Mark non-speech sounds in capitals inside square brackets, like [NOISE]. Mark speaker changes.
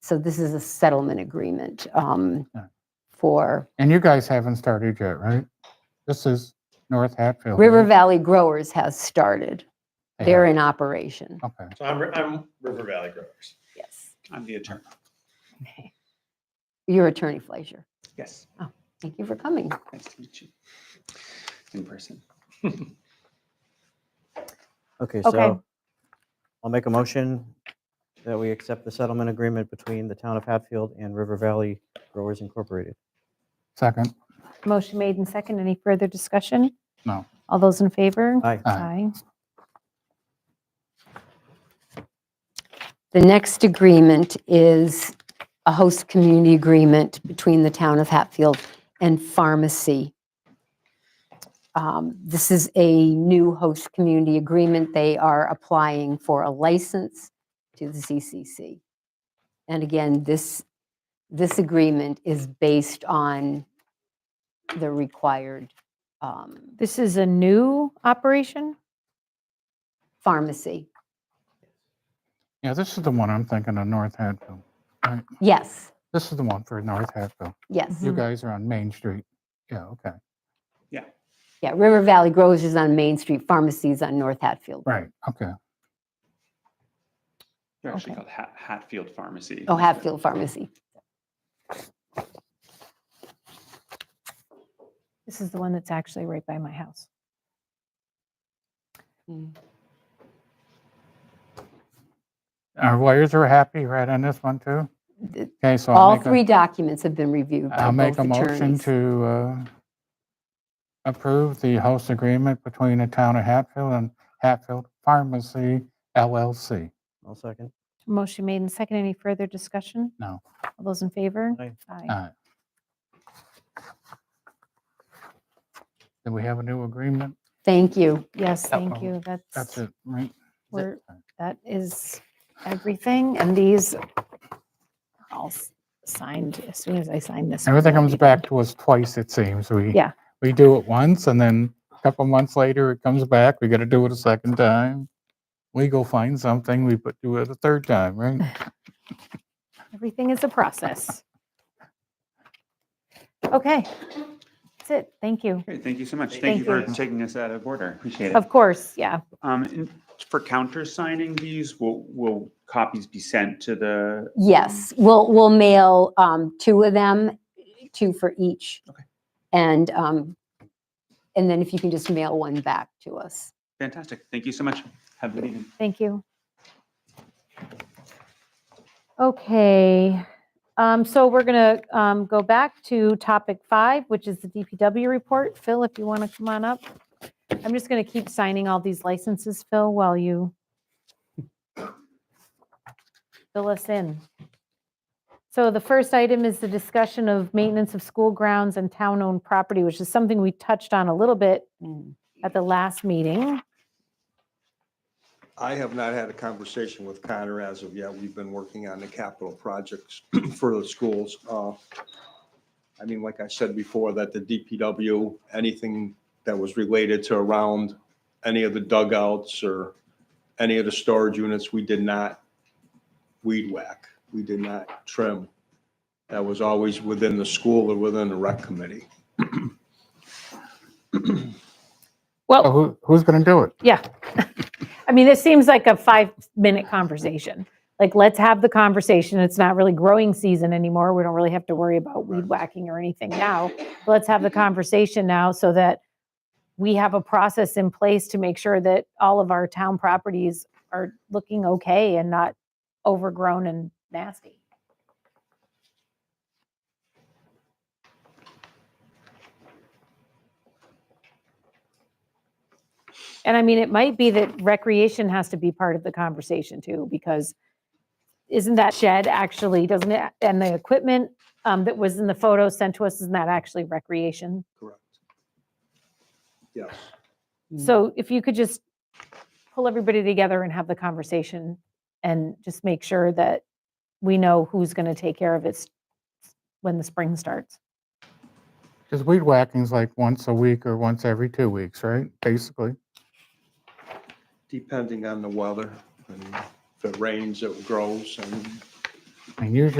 Speaker 1: So this is a settlement agreement um,
Speaker 2: Yeah.
Speaker 1: for
Speaker 2: And you guys haven't started yet, right? This is North Hatfield. right?
Speaker 1: River Valley Growers has started.
Speaker 2: They
Speaker 1: They're
Speaker 2: have-
Speaker 1: in
Speaker 2: Oh.
Speaker 1: operation.
Speaker 2: Okay.
Speaker 3: So I'm, I'm River Valley Growers.
Speaker 1: Yes. [LAUGHS]
Speaker 3: I'm the attorney.
Speaker 1: Your attorney, Fleischer.
Speaker 3: Yes,
Speaker 1: Thank you for coming.
Speaker 3: nice to meet you in person.
Speaker 4: Okay,
Speaker 5: Okay.
Speaker 4: so I'll make a motion that we accept the settlement agreement between the town of Hatfield and River Valley Growers Incorporated.
Speaker 2: Second.
Speaker 5: Motion made and second. Any further discussion?
Speaker 2: No.
Speaker 5: All those in favor?
Speaker 4: Aye.
Speaker 2: Aye.
Speaker 1: The next agreement is a host community agreement between the town of Hatfield and Pharmacy. Um, This is a new host community agreement. They are applying for a license to the CCC. And again, this, this agreement is based on the required um,
Speaker 5: This is a new operation?
Speaker 1: pharmacy.
Speaker 2: Yeah, this is the one I'm thinking of, North Hatfield.
Speaker 1: Yes,
Speaker 2: This is the one for North Hatfield.
Speaker 1: yes.
Speaker 2: You
Speaker 5: Mhm.
Speaker 2: guys are on Main Street. Yeah, okay.
Speaker 1: Yeah, River Valley Growers is on Main Street, Pharmacy is on North Hatfield.
Speaker 2: Right, okay.
Speaker 3: They're actually
Speaker 5: Okay.
Speaker 3: called Hat- Hatfield Pharmacy.
Speaker 1: Oh, Hatfield Pharmacy.
Speaker 5: This is the one that's actually right by my house.
Speaker 2: Our lawyers are happy, right, on this one too?
Speaker 1: Th-
Speaker 2: Okay, so I'll
Speaker 1: All
Speaker 2: make a-
Speaker 1: three documents have been reviewed by
Speaker 2: I'll make
Speaker 1: both
Speaker 2: a motion
Speaker 1: attorneys.
Speaker 2: to uh, approve the host agreement between the town of Hatfield and Hatfield Pharmacy LLC.
Speaker 4: I'll second.
Speaker 5: Motion made and second. Any further discussion?
Speaker 2: No.
Speaker 5: All those in favor?
Speaker 4: Aye.
Speaker 5: Aye.
Speaker 2: Aye. Do we have a new agreement?
Speaker 1: Thank you.
Speaker 5: Yes, thank
Speaker 2: um,
Speaker 5: you.
Speaker 2: That's
Speaker 5: That's,
Speaker 2: it, right?
Speaker 5: we're- that is everything. And these all s- signed as soon as I sign this. one,
Speaker 2: Everything
Speaker 5: that'll
Speaker 2: comes
Speaker 5: be
Speaker 2: back to us twice, it seems. We.
Speaker 5: Yeah.
Speaker 2: We do it once and then a couple months later, it comes back. We got to do it a second time. We go find something, we put, do it a third time, right?
Speaker 5: done. Everything is a process. Okay. That's it. Thank you.
Speaker 3: Great, thank you so much.
Speaker 5: Thank
Speaker 3: Thank you for
Speaker 5: you.
Speaker 3: taking us out of order. Appreciate it.
Speaker 5: Of course, yeah.
Speaker 3: Um, and for counter signing these, will, will copies be sent to the?
Speaker 1: Yes, we'll, we'll mail um, two of them, two for each.
Speaker 3: Okay.
Speaker 1: And, um, and then if you can just mail one back to us.
Speaker 3: Fantastic. Thank you so much. Have a good evening.
Speaker 5: Thank you. Okay, um, so we're going to go back to topic five, which is the DPW report. Phil, if you want to come on up. I'm just going to keep signing all these licenses, Phil, while you fill us in. So the first item is the discussion of maintenance of school grounds and town-owned property, which is something we touched on a little bit at the last meeting.
Speaker 6: I have not had a conversation with Connor as of yet. We've been working on the capital projects [CLEARS THROAT] for the schools. Uh, I mean, like I said before, that the DPW, anything that was related to around any of the dugouts or any of the storage units, we did not weed whack. We did not trim. That was always within the school or within the rec committee.
Speaker 2: So
Speaker 5: Well,
Speaker 2: who, who's going to do it?
Speaker 5: Yeah. [LAUGHS] I mean, this seems like a five minute conversation. Like, let's have the conversation. It's not really growing season anymore. We don't really have to worry about weed whacking or anything now. Let's have the conversation now so that we have a process in place to make sure that all of our town properties are looking okay and not overgrown and nasty. And I mean, it might be that recreation has to be part of the conversation too, because isn't that shed actually, doesn't it, and the equipment um, that was in the photo sent to us, isn't that actually recreation?
Speaker 6: Correct. Yes.
Speaker 5: So if you could just pull everybody together and have the conversation and just make sure that we know who's going to take care of it s- when the spring starts.
Speaker 2: Because weed whacking's like once a week or once every two weeks, right? Basically.
Speaker 6: depending on the weather. and If it rains, it grows, and
Speaker 2: And usually